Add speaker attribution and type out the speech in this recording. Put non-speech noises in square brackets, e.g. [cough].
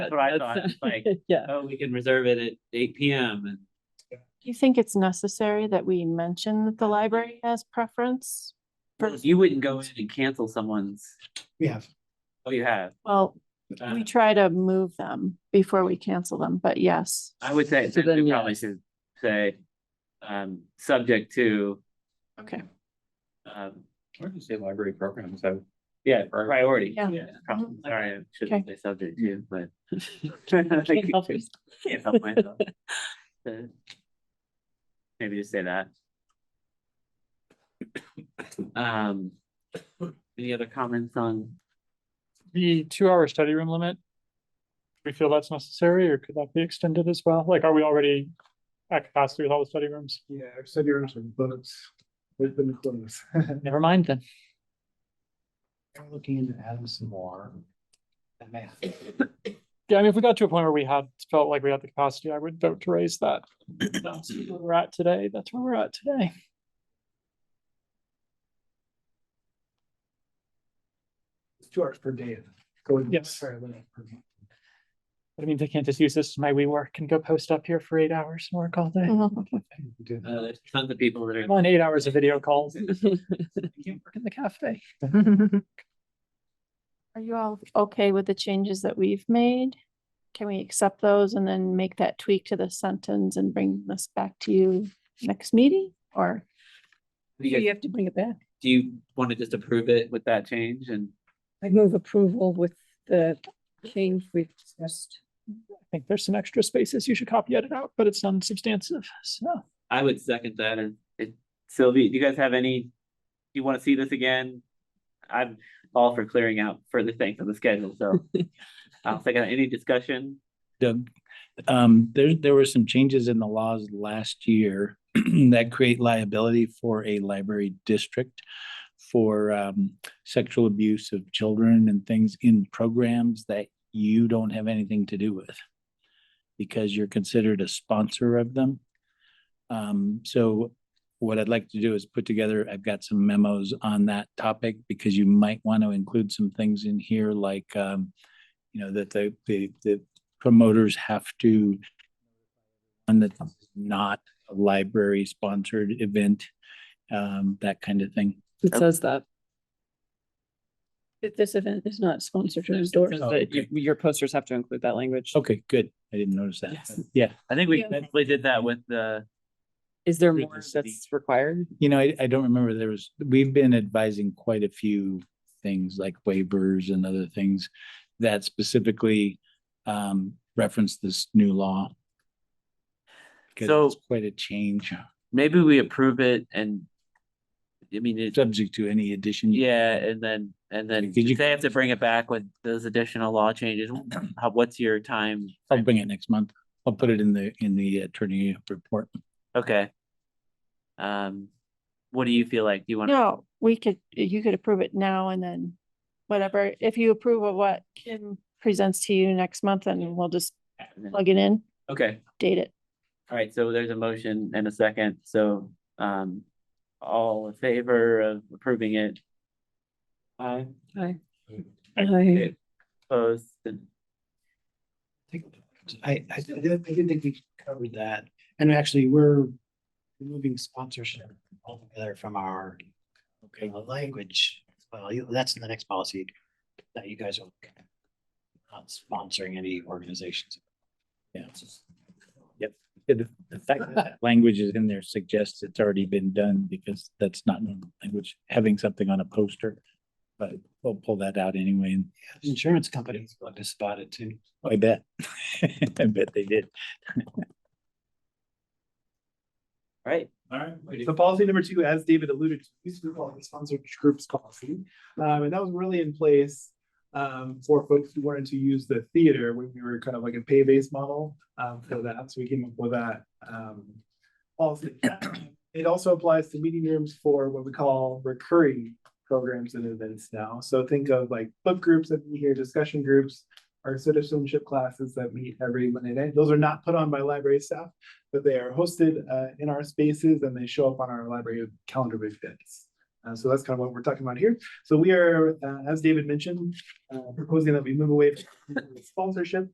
Speaker 1: That's what I thought,
Speaker 2: That's-
Speaker 1: like,
Speaker 2: Yeah,
Speaker 1: oh, we can reserve it at eight P M and.
Speaker 3: Do you think it's necessary that we mention that the library has preference?
Speaker 1: Well, You wouldn't go in and cancel someone's,
Speaker 4: We have.
Speaker 1: oh, you have.
Speaker 3: Well,
Speaker 1: Uh,
Speaker 3: we try to move them before we cancel them, but yes.
Speaker 1: I would say,
Speaker 2: So
Speaker 1: then
Speaker 2: then,
Speaker 1: we
Speaker 2: yeah.
Speaker 1: probably should say, um, subject to,
Speaker 3: Okay. [laughs]
Speaker 1: um,
Speaker 5: Why do you say library programs? I
Speaker 1: yeah, priority.
Speaker 3: Yeah.
Speaker 1: probably.
Speaker 3: Mhm.
Speaker 1: Sorry, I shouldn't say subject to, but. [laughs] Can't
Speaker 2: help yourself.
Speaker 1: help myself. So, Maybe just say that. [coughs] Um, any other comments on,
Speaker 6: the two-hour study room limit. do We feel that's necessary, or could that be extended as well? Like, are we already at capacity with all the study rooms?
Speaker 4: Yeah, our study rooms are booked. They've been closed. [laughs]
Speaker 6: Never mind then.
Speaker 5: I'm looking into adding some more. That may
Speaker 6: Yeah, I mean, if we got to a point where we had felt like we had the capacity, I would vote to raise [clears throat] that. That's where we're at today. That's where we're at today.
Speaker 4: It's Two hours per day. Going.
Speaker 6: Yes.
Speaker 4: Sorry, limit per day.
Speaker 6: But I mean, they can't just use this as my WeWork and go post up here for eight hours and work all day.
Speaker 3: Mhm.
Speaker 4: We do
Speaker 1: uh,
Speaker 4: that.
Speaker 1: there's tons of people that are. [laughs]
Speaker 6: I'm on eight hours of video [laughs] calls. I can't work in the cafe.
Speaker 3: Are you all okay with the changes that we've made? Can we accept those and then make that tweak to the sentence and bring this back to you next meeting or?
Speaker 1: Do you guys-
Speaker 7: have to bring it back.
Speaker 1: do you want to just approve it with that change and?
Speaker 7: I move approval with the change we've discussed.
Speaker 6: I think there's some extra spaces you should copy edit out, but it's non-substantive, so.
Speaker 1: I would second that and it, Sylvie, do you guys have any, do you wanna see this again? I'm all for clearing out further things on the schedule,
Speaker 2: [laughs]
Speaker 1: so. I'll second, that. any discussion?
Speaker 8: Doug, um, there, there were some changes in the laws last year [clears throat] that create liability for a library district for, um, sexual abuse of children and things in programs that you don't have anything to do with because you're considered a sponsor of them. Um, so what I'd like to do is put together, I've got some memos on that topic because you might want to include some things in here like, um, you know, that the, the, the promoters have to on the not a library sponsored event, um, that kind of thing.
Speaker 2: It says that.
Speaker 7: If this event is not sponsored or endorsed.
Speaker 8: Oh,
Speaker 2: But you-
Speaker 8: okay.
Speaker 2: Your posters have to include that language.
Speaker 8: Okay, good. I didn't notice that.
Speaker 2: Yes.
Speaker 8: Yeah,
Speaker 1: I think we
Speaker 7: Yeah.
Speaker 1: definitely did that with the,
Speaker 2: Is there
Speaker 8: Think
Speaker 2: more
Speaker 8: it's the-
Speaker 2: that's required?
Speaker 8: you know, I, I don't remember there was, we've been advising quite a few things like waivers and other things that specifically um, reference this new law. 'Cause
Speaker 1: So-
Speaker 8: it's Quite a change,
Speaker 1: maybe we approve it and. I mean, it,
Speaker 8: subject to any addition.
Speaker 1: yeah, and then, and then
Speaker 8: Did you-
Speaker 1: if they have to bring it back with those additional law changes, how, what's your time?
Speaker 8: I'll bring it next month. I'll put it in the, in the attorney report.
Speaker 1: Okay. Um, what do you feel like? Do you wanna?
Speaker 3: No, we could, you could approve it now and then whatever. If you approve of what Kim presents to you next month, then we'll just plug it in,
Speaker 1: Okay.
Speaker 3: date it.
Speaker 1: All right, so there's a motion and a second, so um all in favor of approving it? Aye.
Speaker 7: Aye.
Speaker 1: Okay.
Speaker 7: I
Speaker 1: Opposed, and
Speaker 5: I, I didn't, I didn't think we covered that. And actually, we're removing sponsorship altogether from our
Speaker 8: Okay.
Speaker 5: uh, language. Well, you- that's in the next policy that you guys are looking at. not sponsoring any organizations.
Speaker 8: Yeah. Yep. Yeah, The the fact that that language is in there suggests it's already been done because that's not normal language, having something on a poster. But we'll pull that out anyway. and
Speaker 5: Insurance companies bugged us about it too.
Speaker 8: I bet. [laughs] I bet they did.
Speaker 1: all right,
Speaker 4: All right, so policy number two, as David alluded to, these were all the sponsored groups policy. Um, and that was really in place um, for folks who wanted to use the theater when we were kind of like a pay-based model um, for that. So we came up with that um, policy. It also applies to meeting rooms for what we call recurring programs and events now. So think of like book groups that meet here, discussion groups, our citizenship classes that meet every Monday night. Those are not put on by library staff but they are hosted uh, in our spaces and they show up on our library calendar with bits. Uh, so that's kind of what we're talking about here. So we are, uh, as David mentioned, uh, proposing that we move away from sponsorship